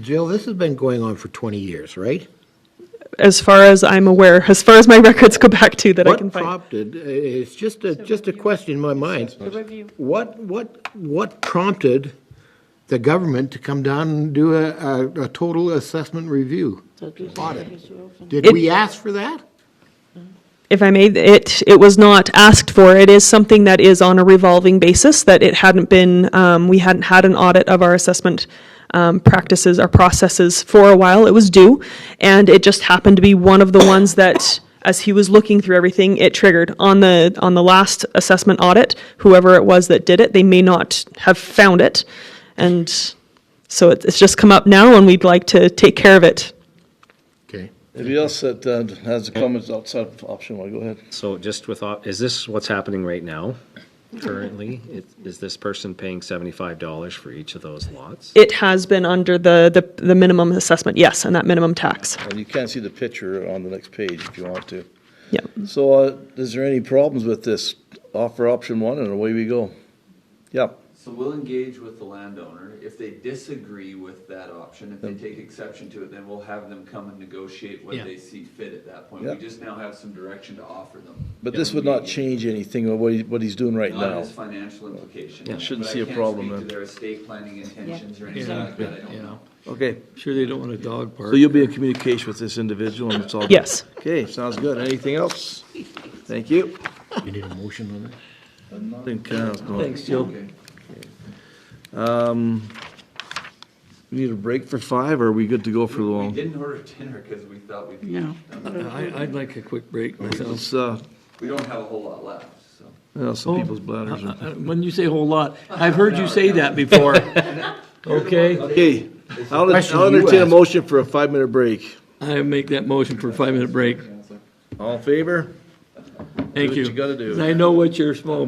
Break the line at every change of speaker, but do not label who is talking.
Jill, this has been going on for 20 years, right?
as far as I'm aware, as far as my records go back to that I can
What
find.
prompted, uh, it's just a, just a question in my mind. What, what, what prompted the government to come down and do a, a- a total assessment review? Audit? Did
It-
we ask for that?
If I may, it, it was not asked for. It is something that is on a revolving basis, that it hadn't been, um, we hadn't had an audit of our assessment um, practices, our processes for a while. It was due, and it just happened to be one of the ones that, as he was looking through everything, it triggered. On the, on the last assessment audit, whoever it was that did it, they may not have found it. And so it- it's just come up now, and we'd like to take care of it.
Okay.
Anybody else that uh, has comments outside of option one, go ahead.
So just with, op- is this what's happening right now currently? It- Is this person paying seventy-five dollars for each of those lots?
It has been under the, the, the minimum assessment, yes, and that minimum tax.
And you can see the picture on the next page if you want to.
Yep.
So uh, is there any problems with this? Offer option one and away we go. Yeah,
So we'll engage with the landowner. If they disagree with that option, if they take exception to it, then we'll have them come and negotiate what
Yeah.
they see fit at that point.
Yeah.
We just now have some direction to offer them.
but this would not change anything of what he- what he's doing right
Not
now.
his financial implications.
Yeah, shouldn't
but I
see a
can't
problem
speak
then.
to their estate planning intentions or anything like that, I don't know.
Okay,
Sure they don't want a dog park.
so you'll be in communication with this individual and it's all. good.
Yes.
Okay, sounds good. Anything else? Thank you.
We need a motion on that?
I think, uh, it's not-
Thanks, Jill.
Um, We need a break for five or are we good to go for the
We
long?
didn't order dinner because we thought we'd.
I, I'd like a quick break myself.
It's, uh,
We don't have a whole lot left, so.
well, some people's bladders
Uh,
are.
uh, When you say whole lot, I've heard you say that before. Okay,
Okay, I'll
question
I'll
you
entertain a
asked.
motion for a five-minute break.
I make that motion for a five-minute break.
All in favor?
Thank
what
you.
you gotta do.
And I know what your small